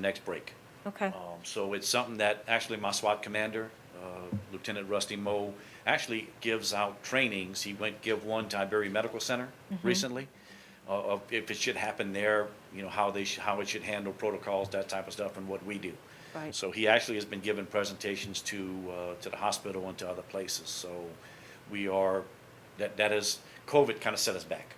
next break. Okay, Um, So it's something that actually my SWAT commander, uh, Lieutenant Rusty Moe, actually gives out trainings. He went give one to Iberia Medical Center recently. uh, Of if it should happen there, you know, how they, sh- how it should handle protocols, that type of stuff, and what we do. Right. So he actually has been giving presentations to, uh, to the hospital and to other places. So we are, that, that is, COVID kind of set us back.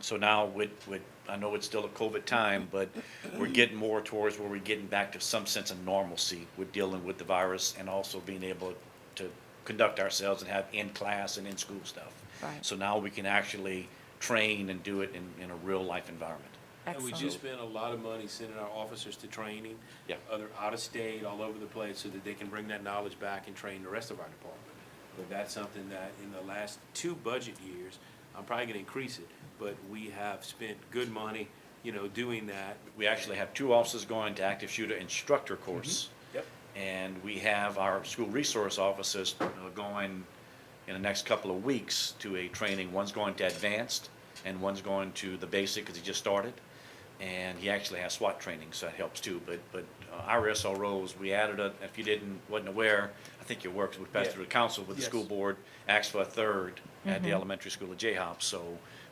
So now with, with, I know it's still a COVID time, but we're getting more towards where we're getting back to some sense of normalcy with dealing with the virus and also being able to conduct ourselves and have in-class and in-school stuff. Right. So now we can actually train and do it in, in a real-life environment. And we just excellent. spent a lot of money sending our officers to training. Yeah. Other, out of state, all over the place, so that they can bring that knowledge back and train the rest of our department. But that's something that in the last two budget years, I'm probably gonna increase it, but we have spent good money, you know, doing that. We actually have two officers going to active shooter instructor course. Yep. And we have our school resource officers uh, going in the next couple of weeks to a training. One's going to advanced and one's going to the basic because he just started. And he actually has SWAT training, so that helps too. But, but uh, our SROs, we added a, if you didn't, wasn't aware, I think your work, we passed Yeah. through the council with the Yes. school board, asked for a third at the elementary school at J-Hop. So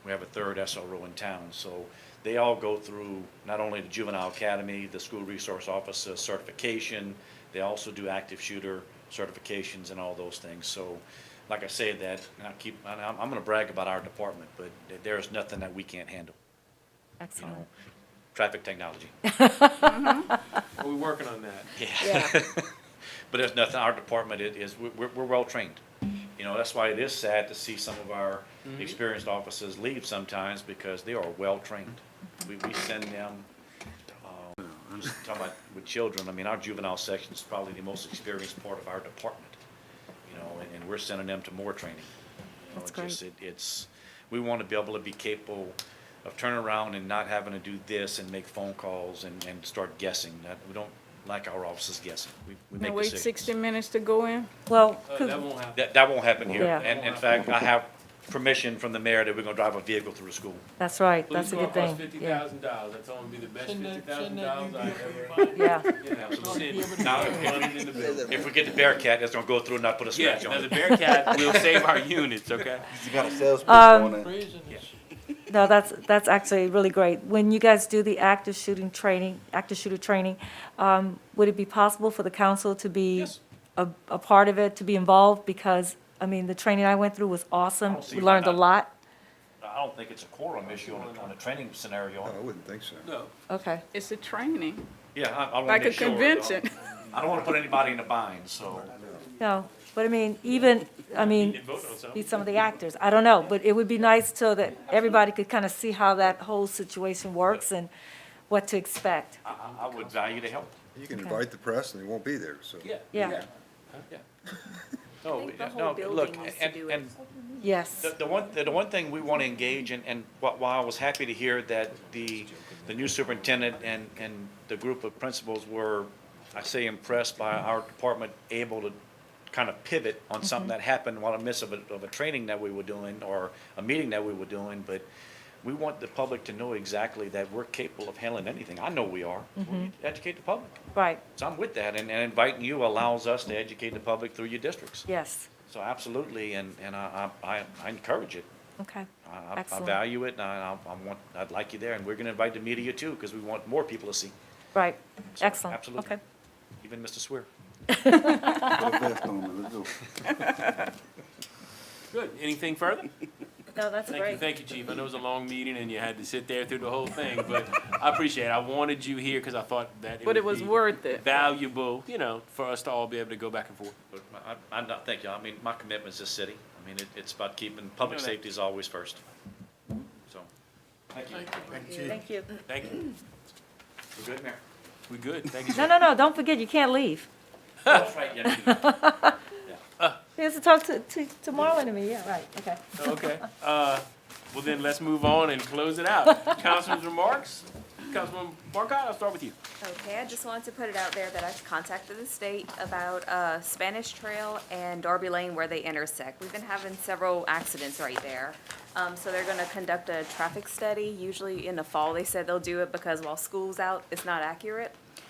we have a third SRO in town. So they all go through not only the juvenile academy, the school resource officer certification, they also do active shooter certifications and all those things. So like I say that, and I keep, and I'm, I'm gonna brag about our department, but th- there is nothing that we can't handle, you know? Excellent. Traffic technology. We're working on that. Yeah, But there's nothing, our department i- is, we're- we're, we're well-trained. You know, that's why it is sad to see some of our experienced officers leave sometimes because they are well-trained. We, we send them, um, just talking about with children, I mean, our juvenile section is probably the most experienced part of our department. You know, and, and we're sending them to more training. You know, That's it's just- it- It's, we want to be able to be capable of turning around and not having to do this and make phone calls and, and start guessing. That, we don't like our officers guessing. We, we And make wait decisions. sixty minutes to go in? well, Uh, that won't happen. That, that won't happen here. Yeah. And in fact, I have permission from the mayor that we're gonna drive a vehicle through the school. that's right, that's a good Police car costs thing. fifty Yeah, thousand dollars, that's only be the best Shouldn't fifty that- thousand dollars shouldn't that I be ever. yeah, Yeah, so send dollars, money in the bill. If we get the Bearcat, that's gonna go through and not put a Yeah, scratch now on the it. Bearcat will save our units, okay? You got a salesperson Um, on it. Reason is, no, that's, that's actually really great. When you guys do the active shooting training, active shooter training, um, would it be possible for the council to be Yes. a, a part of it, to be involved? Because, I mean, the training I went through was awesome. don't see We why learned a not. lot. I don't think it's a quorum issue on a, on a training scenario. Oh, I wouldn't think so. No, Okay, It's a training, Yeah, I, I wanna like a make sure, uh, convention. I don't wanna put anybody in a bind, so. no, but I mean, even, I you mean, can vote on something. be some of the actors. I don't know, but it would be nice so that everybody could kind of see how that whole situation works and what to expect. I, I- I would value the help. You can invite the press and they won't be there, so. Yeah. Yeah, Yeah. No, think the yeah, whole no, building look, needs to and, do it. and yes. The, the one, the the one thing we want to engage in, and wh- while I was happy to hear that the, the new superintendent and, and the group of principals were, I say impressed by our department able to kind of pivot on something that happened while in the midst of a, of a training that we were doing, or a meeting that we were doing, but we want the public to know exactly that we're capable of handling anything. I know we are. We need to Educate the public. Right, So I'm with that, and, and inviting you allows us to educate the public through your districts. yes, So absolutely, and, and I, I, I- I encourage it. okay, I- I, I Excellent. value it, and I, I want, I'd like you there, and we're gonna invite the media too, because we want more people to see, right, So, excellent, absolutely. okay. even Mr. Swear. Put a vest on it, let's go. Good. Anything further? No, that's Thank you, great. thank you, Chief. I know it was a long meeting and you had to sit there through the whole thing, but I appreciate it. I wanted you here because I thought that But it was would be worth it. Valuable, you know, for us to all be able to go back and forth. But I, I- I'm not, thank you, I mean, my commitment's this city, I mean, it, it's about keeping, public No, no. safety is always first, so. Thank you. Thank you. Thank you. We're good, Mayor? We good. Thank you. No, Chief. no, no, don't forget, you can't leave. That's right, yeah, you- He has to talk to, to, to Marlon and me, yeah, right, okay. Okay. Uh, well then, let's move on and close it out. Councilman's remarks? Councilman Marcotte, I'll start with you. Okay, I just wanted to put it out there that I've contacted the state about uh, Spanish Trail and Darby Lane where they intersect. We've been having several accidents right there. Um, So they're going to conduct a traffic study. Usually in the fall, they said they'll do it because while school's out, it's not accurate.